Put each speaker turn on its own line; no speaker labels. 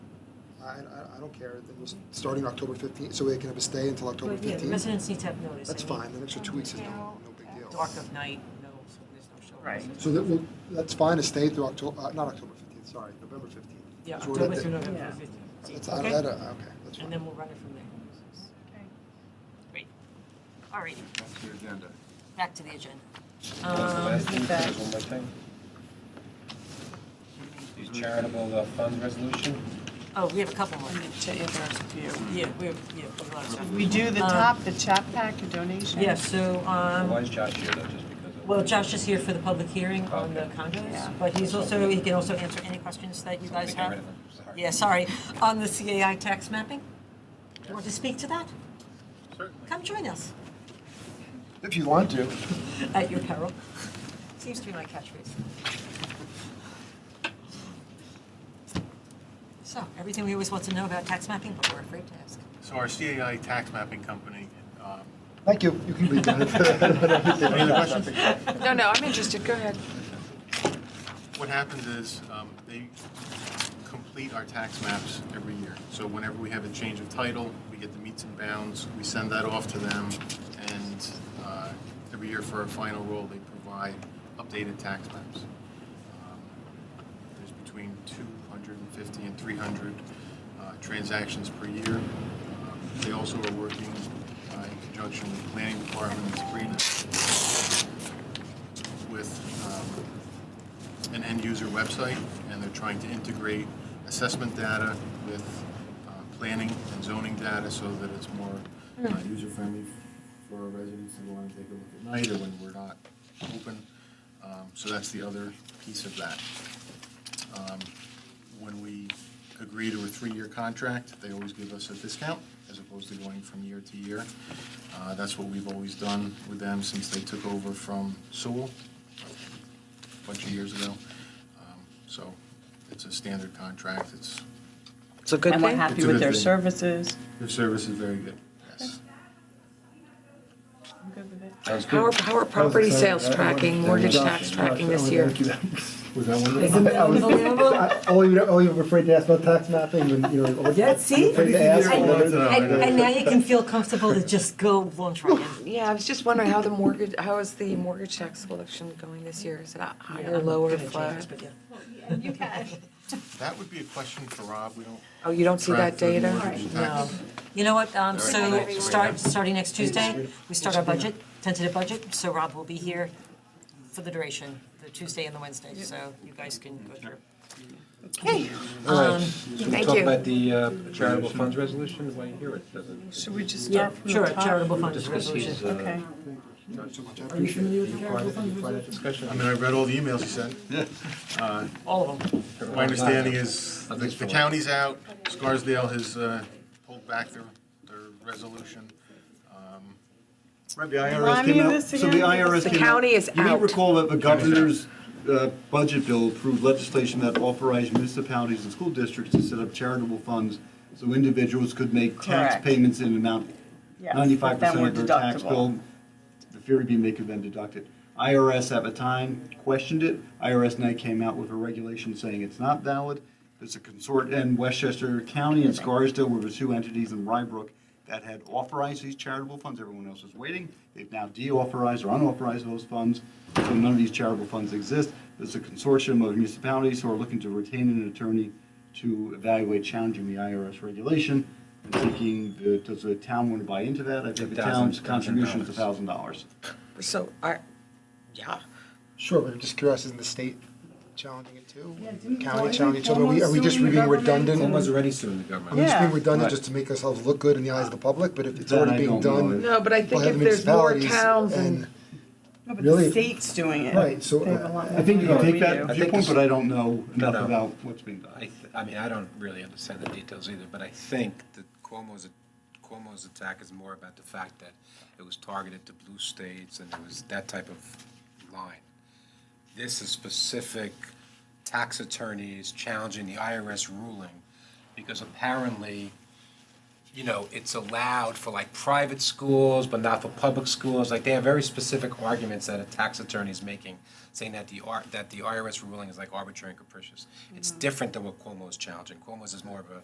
I, I, I don't care, it was starting October fifteenth, so they can have a stay until October
But yeah, the
fifteenth.
residents need to have notice.
That's
I mean,
fine, an extra two weeks is no, no big deal.
Dark of night, no, so there's no shelter.
Right.
So that, will- that's fine, a stay through October, uh, not October fifteenth, sorry, November fifteenth.
Yeah,
So we're at
October
the-
through November
Yeah.
That's,
fifteenth,
I,
okay?
that, uh, okay, that's
And
fine.
then we'll run it from there. Great. All righty,
That's your agenda.
back to the agenda.
What's the
Um,
last thing? There's one more thing. These charitable uh, funds resolution?
Oh, we have a couple more.
To there's a few.
Yeah, we have, yeah, we have a lot of stuff.
We do the
Um,
top, the chop pack, the donation.
Yeah, so, um,
Why is Josh here though, just because of?
well, Josh is here for the public hearing on the
Okay.
condos,
Yeah.
but he's also, he can also answer any questions that you
Somebody
guys
get rid
have.
of him. Sorry.
Yeah, sorry, on the CAI tax mapping. Do you want to speak to that?
Certainly.
Come join us
If you want to.
at your peril. Seems to be my catchphrase. So, everything we always want to know about tax mapping, but we're afraid to ask.
So our CAI tax mapping company, um,
Thank you, you can leave
any other
that.
questions?
No, no, I'm interested, go ahead.
What happens is, um, they complete our tax maps every year. So whenever we have a change of title, we get the meets and bounds, we send that off to them, and, uh, every year for our final roll, they provide updated tax maps. Um, There's between two hundred and fifty and three hundred, uh, transactions per year. Um, They also are working, uh, in conjunction with the planning department and Sabrina with, um, an end user website and they're trying to integrate assessment data with uh, planning and zoning data so that it's more user friendly for our residents to go on and take a look at night or when we're not open. Um, So that's the other piece of that. Um, When we agree to a three-year contract, they always give us a discount as opposed to going from year to year. Uh, That's what we've always done with them since they took over from Sewell a bunch of years ago. Um, So it's a standard contract. It's,
It's a good
And we're
thing.
happy
It's a
with
good
their
thing.
services.
their service is very good. Yes.
I'm good with it.
Sounds
How are,
good.
how are property sales tracking, mortgage tax tracking this year?
Was that one?
Isn't that
I was-
unbelievable?
I- Uh, All you, all you were afraid to ask about tax mapping and, you know. all-
Yeah, see?
Afraid to ask.
I-
whether-
And, and now you can feel comfortable to just go launch right in.
Yeah, I was just wondering how the mortgage, how is the mortgage tax collection going this year? Is it higher, lower, flat?
You can.
That would be a question for Rob. We don't.
Oh, you don't see
track
that
the
data?
mortgage tax.
You know what, um, so
Alright.
start, starting next Tuesday, we start our budget, tentative budget, so Rob will be here for the duration, the Tuesday and the Wednesday, so you guys can go through. Okay, um,
Should we
Thank
talk
you.
about the uh, charitable funds resolution? Why here it doesn't?
Should we just
yeah,
start from the
sure,
top?
charitable funds
Discuss
resolution.
these, uh,
Okay.
Are you familiar with
Discussion.
I mean, I read all the emails you sent.
All of them.
My understanding is
At
the
least
the
for-
county's out, Scarsdale has uh, pulled back their, their resolution. Um,
Right, the IRS
Remind me
came
of
out.
this
So the
again?
IRS
The
came out.
county is
You may
out.
recall that the governor's uh, budget bill approved legislation that authorized municipalities and school districts to set up charitable funds so individuals could make
Correct.
tax payments in an amount
Yes, but
ninety-five
then
percent
we're
of their tax
deductible.
bill. The fear would be making them deduct it. IRS at the time questioned it. IRS now came out with a regulation saying it's not valid. There's a consort in Westchester County and Scarsdale were the two entities in Rybrook that had authorized these charitable funds. Everyone else was waiting. They've now deauthorized or unauthorized those funds. So none of these charitable funds exist. There's a consortium of municipalities who are looking to retain an attorney to evaluate challenging the IRS regulation and thinking, the- does the town want to buy into that? I think the
$1,000,
town's contribution is a thousand dollars.
So, I, yeah.
Sure, but I'm just curious, isn't the state challenging it too?
Yeah, didn't-
County
wasn't
challenging it too, are we, are we just
Cuomo suing the
being
government?
redundant?
Someone's already suing the
Are
government.
we just being
Yeah.
redundant
Right.
just to make ourselves look good in the eyes of the public, but if it's
That I
already being
don't know.
done.
No, but I
by
think if
the
there's more
municipalities
towns and,
No, but
Really?
the state's doing it.
Right, so,
They have a lot
I think you
more than
can
we
take
do.
that
think
viewpoint,
this-
but I don't know enough
No.
about what's being done.
I, th- I mean, I don't really understand the details either, but I think that Cuomo's, Cuomo's attack is more about the fact that it was targeted to blue states and it was that type of line. This is specific tax attorneys challenging the IRS ruling because apparently, you know, it's allowed for like private schools, but not for public schools. Like they have very specific arguments that a tax attorney is making, saying that the R, that the IRS ruling is like arbitrary and capricious. It's different than what Cuomo is challenging. Cuomo's is more of a